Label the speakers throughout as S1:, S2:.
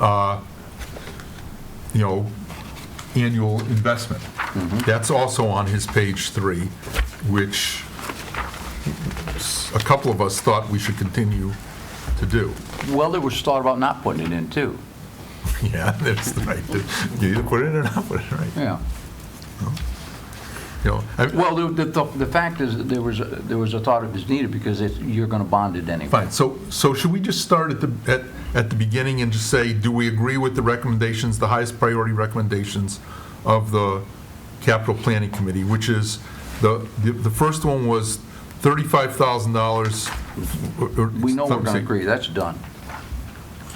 S1: uh, you know, annual investment. That's also on his page three, which s- a couple of us thought we should continue to do.
S2: Well, there was thought about not putting it in, too.
S1: Yeah, that's the right, you either put it in or not put it in, right?
S2: Yeah.
S1: You know, I-
S2: Well, the, the, the fact is, that there was, a- there was a thought it was needed because it's, you're going to bond it anyway.
S1: Fine, so, so should we just start at the, at, at the beginning and just say, do we agree with the recommendations, the highest priority recommendations of the capital planning committee, which is, the, the- the first one was $35,000. or- or
S2: We know we're going to
S1: something.
S2: agree, that's done.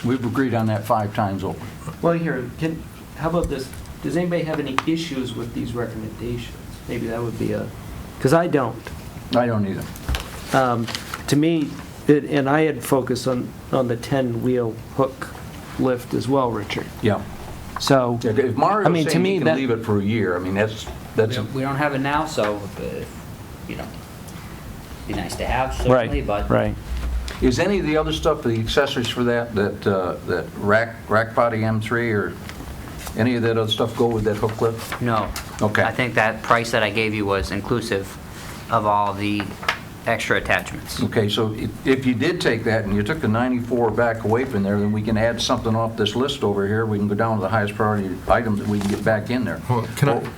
S2: We've agreed on that five times over.
S3: Well, here, can, how about this? Does anybody have any issues with these recommendations? Maybe that would be a, because I don't.
S2: I don't either.
S3: Um, To me, it- and I had focused on, on the 10-wheel hook lift as well, Richard.
S2: Yeah.
S3: So,
S2: If
S3: I
S2: Mario's
S3: mean, to
S2: saying
S3: me,
S2: he can
S3: that-
S2: leave it for a year, I mean, that's,
S4: We
S2: that's,
S4: don't- we don't have it now, so, uh, you know, be nice to have certainly,
S3: right,
S4: but.
S3: right.
S2: is any of the other stuff, the accessories for that, that, uh, that rack, rack body M3 or any of that other stuff go with that hook lift?
S4: No.
S2: Okay.
S4: I think that price that I gave you was inclusive of all the extra attachments.
S2: Okay, so if- if you did take that and you took the 94 back away from there, then we can add something off this list over here. We can go down to the highest priority items that we can get back in there.
S1: Well, Can I, can-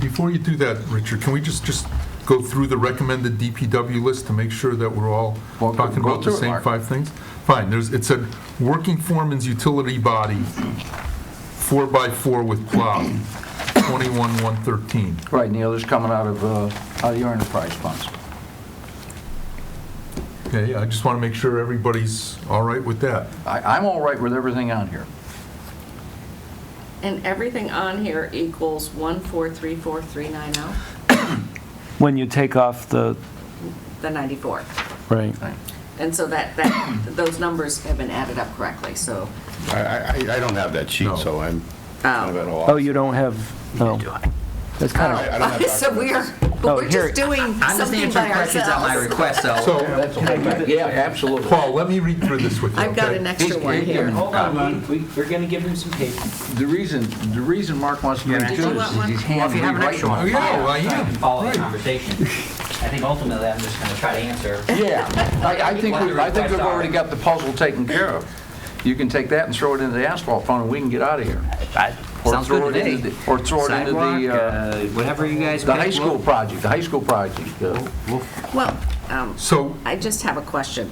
S1: before you do that, Richard, can we just, just go through the recommended DPW list to make sure that we're all
S2: Well, go-
S1: talking
S2: go
S1: about the
S2: through it,
S1: same
S2: Mark.
S1: five things? Fine, there's, it said, working foreman's utility body, four by four with plow, 21,113.
S2: Right, and the other's coming out of, uh, out of your enterprise funds.
S1: Okay, I just want to make sure everybody's all right with that.
S2: I, I'm all right with everything on here.
S5: And everything on here equals one four three four three nine oh,
S3: When you take off the,
S5: the ninety-four.
S3: right.
S5: And so that, that, those numbers have been added up correctly, so.
S6: I, I, I don't have that
S1: No.
S6: sheet, so I'm kind of at a
S3: Oh,
S6: loss.
S3: you don't have, oh. That's kind of,
S6: I don't have
S5: uh, So we are,
S3: Oh,
S5: but we're
S3: here-
S5: just doing
S4: I'm just
S5: something by
S4: answering questions at my
S5: ourselves.
S4: request,
S1: So,
S4: so.
S2: Yeah, absolutely.
S1: Paul, let me read through this with you,
S5: I've got
S1: okay?
S5: an extra
S2: He's-
S5: one
S2: he's
S5: here.
S2: giving-
S5: All
S2: Hold on,
S3: we, we're going to give him some paper.
S2: The reason, the reason Mark wants to do
S5: Did you
S2: it
S5: want
S2: is
S5: one?
S2: he's
S4: Well, if
S2: handing
S4: you
S2: me
S4: have an
S2: right
S4: extra
S1: Oh,
S2: one.
S1: yeah, I
S4: trying
S1: am,
S4: to follow the
S1: right.
S4: conversation. I think ultimately, I'm just going to try to answer.
S2: Yeah, I, I think,
S4: What
S2: we-
S4: the
S2: I think
S4: requests
S2: we've
S4: are.
S2: already got the puzzle taken care of. You can take that and throw it into the asphalt fund, and we can get out of here.
S4: I-
S2: Or
S4: Sounds
S2: throw
S4: good
S2: it
S4: to
S2: into
S4: me.
S2: the- or throw it into the,
S4: Sidewalk,
S2: uh,
S4: uh, Whatever you guys.
S2: The
S4: pick,
S2: high
S4: we'll-
S2: school project, the high school project. uh,
S5: Well, um,
S1: So,
S5: I just have a question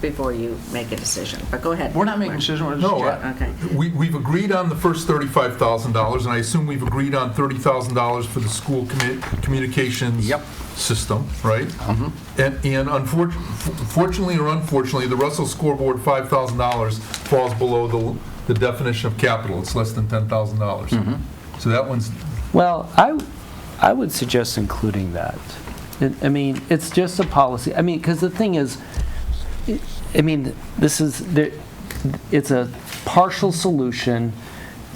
S5: before you make a decision, but go ahead.
S2: We're not making decisions, we're just
S1: No,
S2: chatting.
S1: I-
S5: Okay.
S1: we, we've agreed on the first thirty-five thousand dollars, and I assume we've agreed on thirty thousand dollars for the school commu- communications
S2: Yep.
S1: system, right?
S3: Mm-hmm.
S1: And, and unfortunately, fortunately or unfortunately, the Russell scoreboard five thousand dollars falls below the, the definition of capital. It's less than ten thousand dollars.
S3: Mm-hmm.
S1: So that one's,
S3: Well, I, I would suggest including that. It- I mean, it's just a policy, I mean, because the thing is, it- I mean, this is, the- it's a partial solution,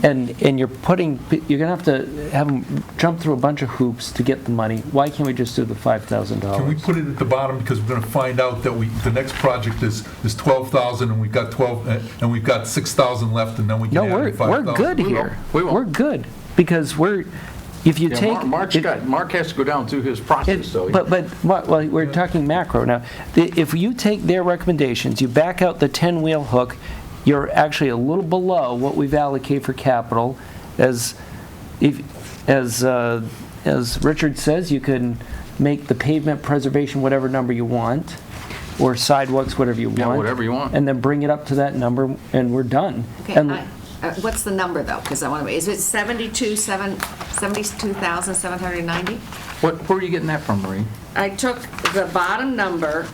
S3: and, and you're putting, you're going to have to have them jump through a bunch of hoops to get the money. Why can't we just do the
S1: can we
S3: $5,000?
S1: put it at the bottom, because we're gonna find out that we, the next project is, is twelve thousand, and we've got twelve, uh, and we've got six thousand left, and then we
S3: No,
S1: can
S3: we're,
S1: add five
S3: we're
S1: thousand.
S3: good
S2: won't.
S3: here.
S2: We won't.
S3: We're good, because we're, if you
S2: Yeah,
S3: take.
S2: Mar- Mark's
S3: if-
S2: got, Mark has to go down through his
S3: It-
S2: process, though.
S3: But, but, what- well, we're talking macro now. The- If you take their recommendations, you back out the 10-wheel hook, you're actually a little below what we've allocated for capital. As, if, as, uh, as Richard says, you can make the pavement preservation whatever number you want, or sidewalks, whatever you want.
S2: Yeah, whatever you want.
S3: And then bring it up to that number, and we're done.
S5: Okay,
S3: And-
S5: I- uh, what's the number though? Because I want to, is it seventy-two, seven, seventy-two thousand, seven hundred and ninety?
S2: What, where are you getting that from, Marie?
S5: I took the bottom number,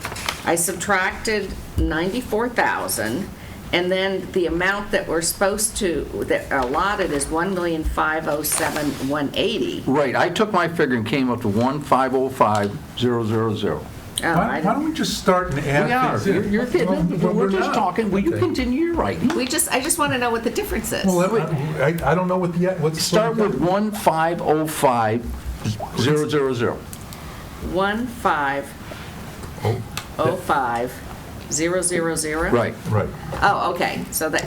S5: I subtracted 94,000, and then the amount that we're supposed to, that are allotted is 1,507,180.
S2: Right, I took my figure and came up to one five oh five zero zero zero.
S5: Oh,
S1: Why
S5: I
S1: why don't
S5: don't-
S1: we just start and
S2: We
S1: add
S2: are,
S1: things
S2: you're
S1: in?
S2: you're kidding,
S1: Well,
S2: we're
S1: not.
S2: just talking, will you
S1: Okay.
S2: continue your writing?
S5: We just, I just want to know what the difference is.
S1: Well, let me- I, I don't know what the, what's.
S2: Start with one five oh five zero zero zero.
S5: 1505000.
S2: Right.
S1: Right.
S5: Oh, okay, so that,